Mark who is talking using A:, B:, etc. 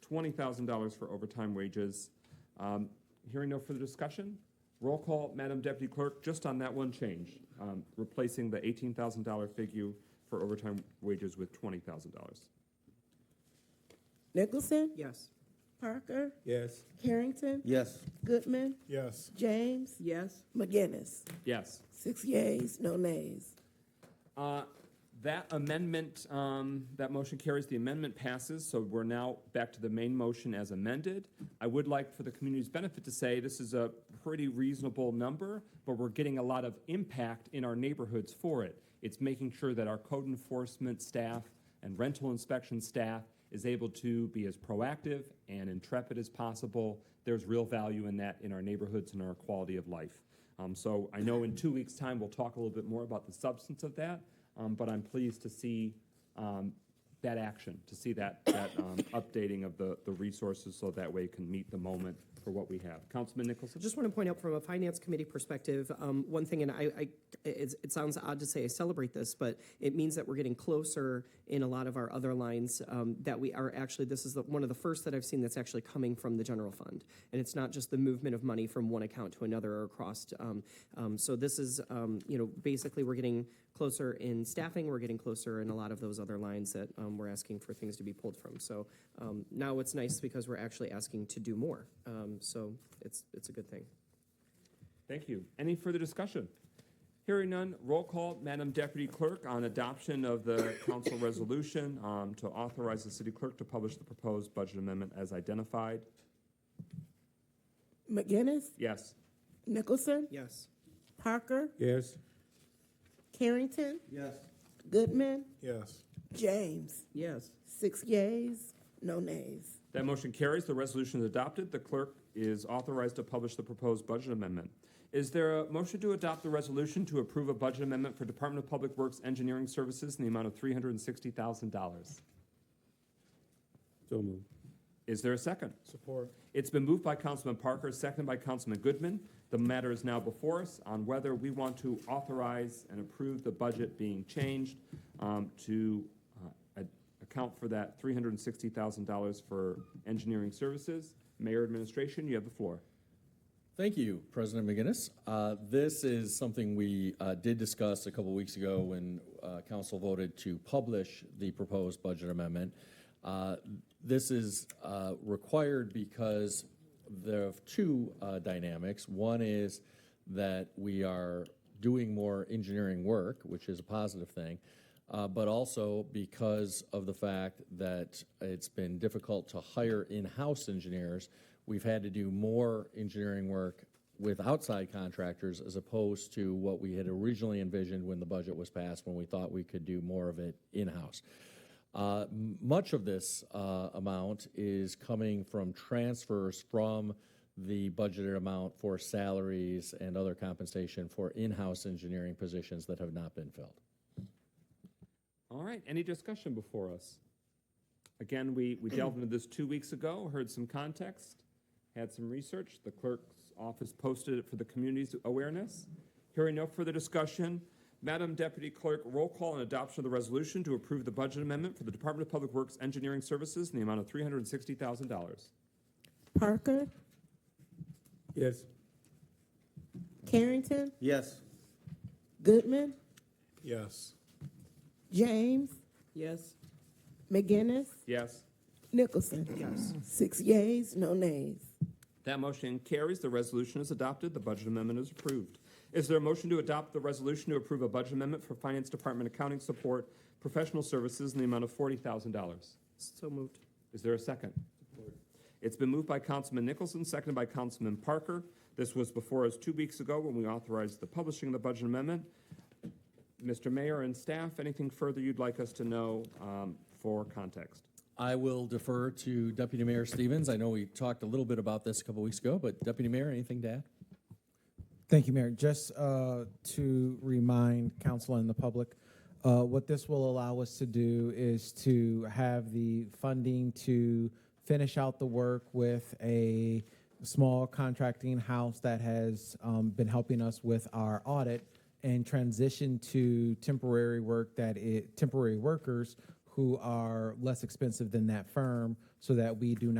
A: twenty thousand dollars for overtime wages. Um, Hearing no further discussion, roll call, Madam Deputy Clerk, just on that one change, um, replacing the eighteen thousand dollar figure for overtime wages with twenty thousand dollars.
B: Nicholson,
C: Yes.
B: Parker,
D: Yes.
B: Carrington,
E: Yes.
B: Goodman,
D: Yes.
B: James,
C: Yes.
B: McGinnis.
A: Yes.
B: Six yeas, no nays.
A: Uh, That amendment, um, that motion carries, the amendment passes, so we're now back to the main motion as amended. I would like, for the community's benefit, to say this is a pretty reasonable number, but we're getting a lot of impact in our neighborhoods for it. It's making sure that our code enforcement staff and rental inspection staff is able to be as proactive and intrepid as possible. There's real value in that in our neighborhoods and our quality of life. Um, so I know in two weeks' time we'll talk a little bit more about the substance of that, um, but I'm pleased to see um, that action, to see that, that um, updating of the, the resources so that way it can meet the moment for what we have. Councilman Nicholson?
C: Just want to point out from a finance committee perspective, um, one thing, and I, I, it's, it sounds odd to say I celebrate this, but it means that we're getting closer in a lot of our other lines, um, that we are actually, this is the, one of the first that I've seen that's actually coming from the general fund. And it's not just the movement of money from one account to another or across, um, um, so this is, um, you know, basically we're getting closer in staffing, we're getting closer in a lot of those other lines that, um, we're asking for things to be pulled from. So, um, now it's nice because we're actually asking to do more. Um, so it's, it's a good thing.
A: Thank you. Any further discussion? Hearing none, roll call, Madam Deputy Clerk, on adoption of the council resolution um, to authorize the city clerk to publish the proposed budget amendment as identified.
B: McGinnis,
A: Yes.
B: Nicholson,
C: Yes.
B: Parker,
D: Yes.
B: Carrington,
E: Yes.
B: Goodman,
D: Yes.
B: James.
C: Yes.
B: Six yeas, no nays.
A: That motion carries. The resolution is adopted. The clerk is authorized to publish the proposed budget amendment. Is there a motion to adopt the resolution to approve a budget amendment for Department of Public Works Engineering Services in the amount of $360,000?
D: So moved.
A: Is there a second?
D: Support.
A: It's been moved by Councilman Parker, seconded by Councilman Goodman. The matter is now before us on whether we want to authorize and approve the budget being changed um, to uh, a- account for that $360,000 for engineering services. Mayor Administration, you have the floor.
F: Thank you, President McGinnis. Uh, This is something we uh, did discuss a couple weeks ago when uh, council voted to publish the proposed budget amendment. Uh, This is uh, required because there are two uh, dynamics. One is that we are doing more engineering work, which is a positive thing, uh, but also because of the fact that it's been difficult to hire in-house engineers, we've had to do more engineering work with outside contractors as opposed to what we had originally envisioned when the budget was passed, when we thought we could do more of it in-house. Uh, m- Much of this uh, amount is coming from transfers from the budgeted amount for salaries and other compensation for in-house engineering positions that have not been filled.
A: All right, any discussion before us? Again, we, we delved into this two weeks ago, heard some context, had some research. The clerk's office posted it for the community's awareness. Hearing no further discussion, Madam Deputy Clerk, roll call and adoption of the resolution to approve the budget amendment for the Department of Public Works Engineering Services in the amount of $360,000.
B: Parker,
D: Yes.
B: Carrington,
E: Yes.
B: Goodman,
D: Yes.
B: James,
C: Yes.
B: McGinnis,
A: Yes?
B: Nicholson.
C: Yes.
B: Six yeas, no nays.
A: That motion carries. The resolution is adopted. The budget amendment is approved. Is there a motion to adopt the resolution to approve a budget amendment for Finance Department accounting support, professional services in the amount of $40,000?
C: So moved.
A: Is there a second? It's been moved by Councilman Nicholson, seconded by Councilman Parker. This was before us two weeks ago when we authorized the publishing of the budget amendment. Mr. Mayor and staff, anything further you'd like us to know um, for context?
F: I will defer to Deputy Mayor Stevens. I know we talked a little bit about this a couple weeks ago, but Deputy Mayor, anything to add?
G: Thank you, Mayor. Just uh, to remind council and the public, uh, what this will allow us to do is to have the funding to finish out the work with a small contracting house that has um, been helping us with our audit and transition to temporary work that it, temporary workers who are less expensive than that firm so that we do not